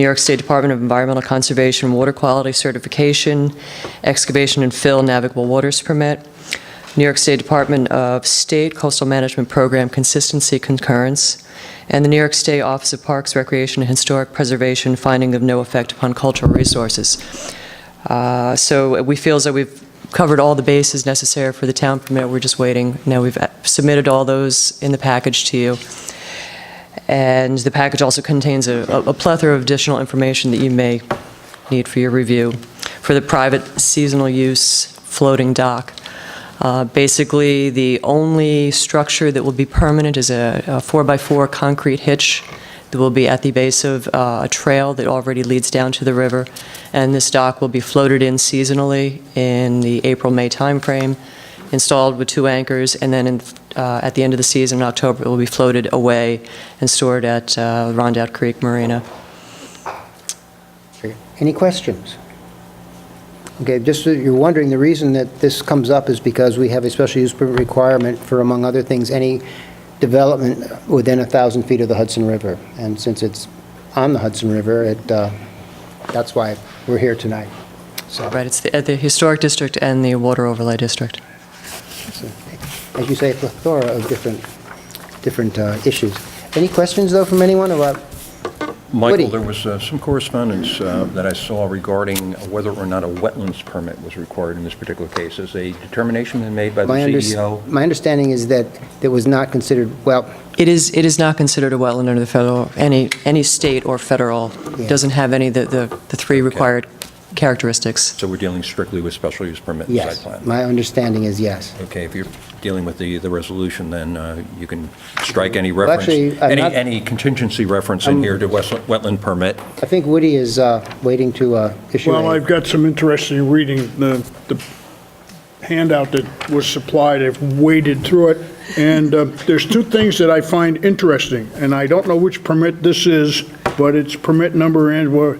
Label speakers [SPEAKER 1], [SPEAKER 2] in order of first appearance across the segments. [SPEAKER 1] New York State Department of Environmental Conservation Water Quality Certification, Excavation and Fill Navigable Waters Permit, New York State Department of State Coastal Management Program Consistency Concurrence, and the New York State Office of Parks, Recreation, and Historic Preservation Finding of No Effect Upon Cultural Resources. Uh, So we feel as though we've covered all the bases necessary for the town permit. We're just waiting. Now, we've uh, submitted all those in the package to you. And the package also contains a a plethora of additional information that you may need for your review for the private seasonal use floating dock. Uh, Basically, the only structure that will be permanent is a a four-by-four concrete hitch that will be at the base of uh, a trail that already leads down to the river, and this dock will be floated in seasonally in the April-May timeframe, installed with two anchors, and then in, uh, at the end of the season, in October, it will be floated away and stored at uh, Rondout Creek Marina.
[SPEAKER 2] Any questions? Okay, just so you're wondering, the reason that this comes up is because we have a special use permit requirement for, among other things, any development within a 1,000 feet of the Hudson River. And since it's on the Hudson River, it, uh, that's why we're here tonight. So,
[SPEAKER 1] Right, it's the- at the Historic District and the Water Overlay District.
[SPEAKER 2] so, as you say, a plethora of different, different uh, issues. Any questions, though, from anyone about, Woody.
[SPEAKER 3] Michael, there was uh, some correspondence uh, that I saw regarding whether or not a wetlands permit was required in this particular case. Has a determination been made by the E
[SPEAKER 2] my under-
[SPEAKER 3] CEO?
[SPEAKER 2] my understanding is that it was not considered, well,
[SPEAKER 1] It is, it is not considered a wetland under the federal, any, any state or federal,
[SPEAKER 2] Yeah.
[SPEAKER 1] doesn't have any of the, the the three required characteristics.
[SPEAKER 3] So we're dealing strictly with special use permit and site
[SPEAKER 2] yes.
[SPEAKER 3] plan?
[SPEAKER 2] My understanding is yes.
[SPEAKER 3] Okay, if you're dealing with the, the resolution, then uh, you can strike any
[SPEAKER 2] Well,
[SPEAKER 3] reference,
[SPEAKER 2] actually, I'm
[SPEAKER 3] any,
[SPEAKER 2] not-
[SPEAKER 3] any contingency reference in here to wes- wetland permit.
[SPEAKER 2] I think Woody is uh, waiting to uh, issue
[SPEAKER 4] Well, I've
[SPEAKER 2] a...
[SPEAKER 4] got some interesting reading. The the handout that was supplied, I've waded through it, and uh, there's two things that I find interesting, and I don't know which permit this is, but it's permit number, and we're-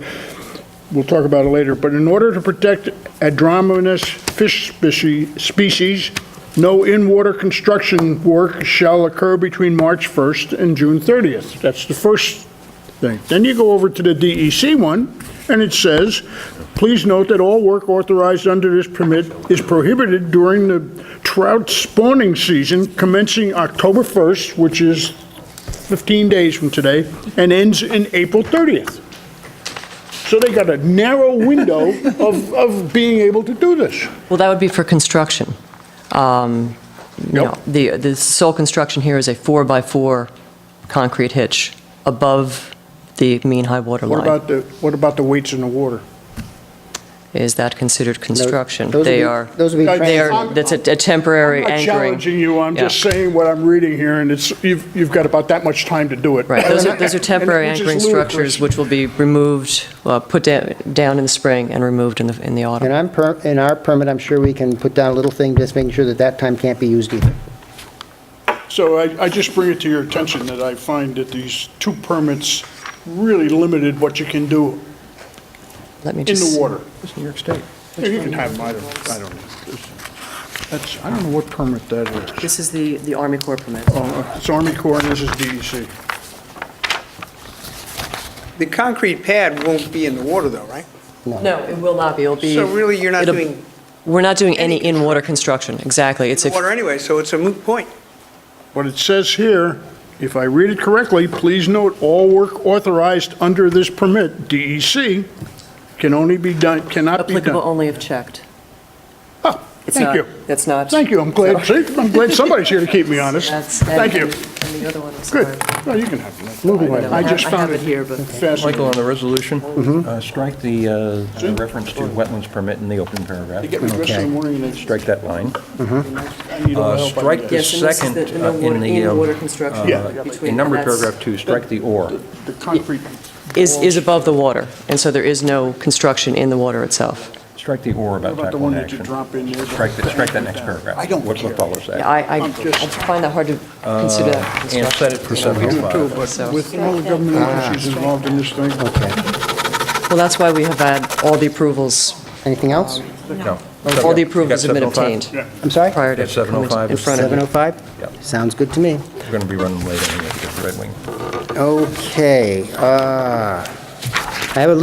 [SPEAKER 4] we'll talk about it later, but in order to protect adromonous fish speci- species, no in-water construction work shall occur between March 1st and June 30th. That's the first thing. Then you go over to the DEC one, and it says, please note that all work authorized under this permit is prohibited during the trout spawning season commencing October 1st, which is 15 days from today, and ends in April 30th. So they got a narrow window of, of being able to do this.
[SPEAKER 1] Well, that would be for construction. Um, you know,
[SPEAKER 4] Yep.
[SPEAKER 1] The, the sole construction here is a four-by-four concrete hitch above the mean high water
[SPEAKER 4] What
[SPEAKER 1] line.
[SPEAKER 4] about the, what about the weights in the water?
[SPEAKER 1] Is that considered construction?
[SPEAKER 2] Those would
[SPEAKER 1] They
[SPEAKER 2] be-
[SPEAKER 1] are,
[SPEAKER 2] those would be
[SPEAKER 1] they are,
[SPEAKER 4] trans-
[SPEAKER 1] that's a a temporary
[SPEAKER 4] I'm not
[SPEAKER 1] anchoring.
[SPEAKER 4] challenging you, I'm
[SPEAKER 1] Yeah.
[SPEAKER 4] just saying what I'm reading here, and it's, you've, you've got about that much time to do it.
[SPEAKER 1] Right, those are, those are
[SPEAKER 4] And-
[SPEAKER 1] temporary
[SPEAKER 4] which is
[SPEAKER 1] anchoring
[SPEAKER 4] ludicrous.
[SPEAKER 1] structures which will be removed, uh, put da- down in the spring and removed in the, in the
[SPEAKER 2] In
[SPEAKER 1] autumn.
[SPEAKER 2] our, per- in our permit, I'm sure we can put down a little thing, just making sure that that time can't be used either.
[SPEAKER 4] So I, I just bring it to your attention that I find that these two permits really limited what you can do
[SPEAKER 1] Let me
[SPEAKER 4] in
[SPEAKER 1] just.
[SPEAKER 4] the water.
[SPEAKER 3] It's New York State.
[SPEAKER 4] You can have them, I don't, I don't know. That's, I don't know what permit that is.
[SPEAKER 1] This is the, the Army Corps permit.
[SPEAKER 4] Oh, It's Army Corps and this is E DEC.
[SPEAKER 5] The concrete pad won't be in the water though, right?
[SPEAKER 1] No, it will not be, it'll be.
[SPEAKER 5] So really, you're not
[SPEAKER 1] it'll-
[SPEAKER 5] doing
[SPEAKER 1] We're not doing any
[SPEAKER 5] any
[SPEAKER 1] in-water construction, exactly. It's
[SPEAKER 5] the water
[SPEAKER 1] a,
[SPEAKER 5] anyway, so it's a moot point.
[SPEAKER 4] What it says here, if I read it correctly, please note, all work authorized under this permit, DEC, can only be done, cannot be
[SPEAKER 1] applicable
[SPEAKER 4] done.
[SPEAKER 1] only if checked.
[SPEAKER 4] Oh,
[SPEAKER 1] It's
[SPEAKER 4] Thank
[SPEAKER 1] not-
[SPEAKER 4] you.
[SPEAKER 1] That's not.
[SPEAKER 4] Thank you, I'm glad, see, I'm glad somebody's here to keep me honest.
[SPEAKER 1] That's- and-
[SPEAKER 4] Thank you.
[SPEAKER 1] And the other one is.
[SPEAKER 4] Good. No, you can have it. Moving
[SPEAKER 1] I know,
[SPEAKER 4] I just
[SPEAKER 1] I have
[SPEAKER 4] found
[SPEAKER 1] it
[SPEAKER 4] it
[SPEAKER 1] here, but.
[SPEAKER 3] Michael,
[SPEAKER 4] fascinating.
[SPEAKER 3] on the resolution,
[SPEAKER 2] Mm-hmm.
[SPEAKER 3] uh, strike the uh, the reference to wetlands permit in the open
[SPEAKER 4] They
[SPEAKER 3] paragraph.
[SPEAKER 4] get me dressed in the morning and they
[SPEAKER 3] Strike that line.
[SPEAKER 4] I need all
[SPEAKER 3] Uh,
[SPEAKER 4] the help I
[SPEAKER 3] strike
[SPEAKER 4] can get.
[SPEAKER 3] the
[SPEAKER 1] Yes, and this is
[SPEAKER 3] second
[SPEAKER 1] the- the no
[SPEAKER 3] uh,
[SPEAKER 1] water-
[SPEAKER 3] in the. um,
[SPEAKER 1] in-water construction
[SPEAKER 4] Yeah.
[SPEAKER 3] uh,
[SPEAKER 1] between-
[SPEAKER 3] In
[SPEAKER 1] and
[SPEAKER 3] number
[SPEAKER 1] that's-
[SPEAKER 3] paragraph two, strike the or.
[SPEAKER 4] The concrete.
[SPEAKER 1] Is, is above the water, and so there is no construction in the water itself.
[SPEAKER 3] Strike the or
[SPEAKER 4] What
[SPEAKER 3] about
[SPEAKER 4] about
[SPEAKER 3] type
[SPEAKER 4] the one
[SPEAKER 3] one
[SPEAKER 4] that you
[SPEAKER 3] action.
[SPEAKER 4] drop in there?
[SPEAKER 3] Strike that, strike that next paragraph.
[SPEAKER 4] I don't
[SPEAKER 3] What-
[SPEAKER 4] care.
[SPEAKER 3] What follows that?
[SPEAKER 1] I, I I find that hard to consider that
[SPEAKER 3] Uh, And
[SPEAKER 1] construction.
[SPEAKER 3] set it for seven oh
[SPEAKER 4] Too,
[SPEAKER 3] five.
[SPEAKER 1] So-
[SPEAKER 4] but with all the government
[SPEAKER 3] Ah.
[SPEAKER 4] agencies involved in this thing,
[SPEAKER 1] Well, that's why we have had all the approvals,
[SPEAKER 2] Anything else?
[SPEAKER 3] No.
[SPEAKER 1] all the approvals have been
[SPEAKER 3] You got 705?
[SPEAKER 1] obtained
[SPEAKER 2] I'm sorry?
[SPEAKER 1] prior to
[SPEAKER 3] At 7:05
[SPEAKER 1] coming in front of you.
[SPEAKER 2] 7:05?
[SPEAKER 3] Yep.
[SPEAKER 2] Sounds good to me.
[SPEAKER 3] We're going to be running late anyway because Red Wing.
[SPEAKER 2] Okay, uh, I have a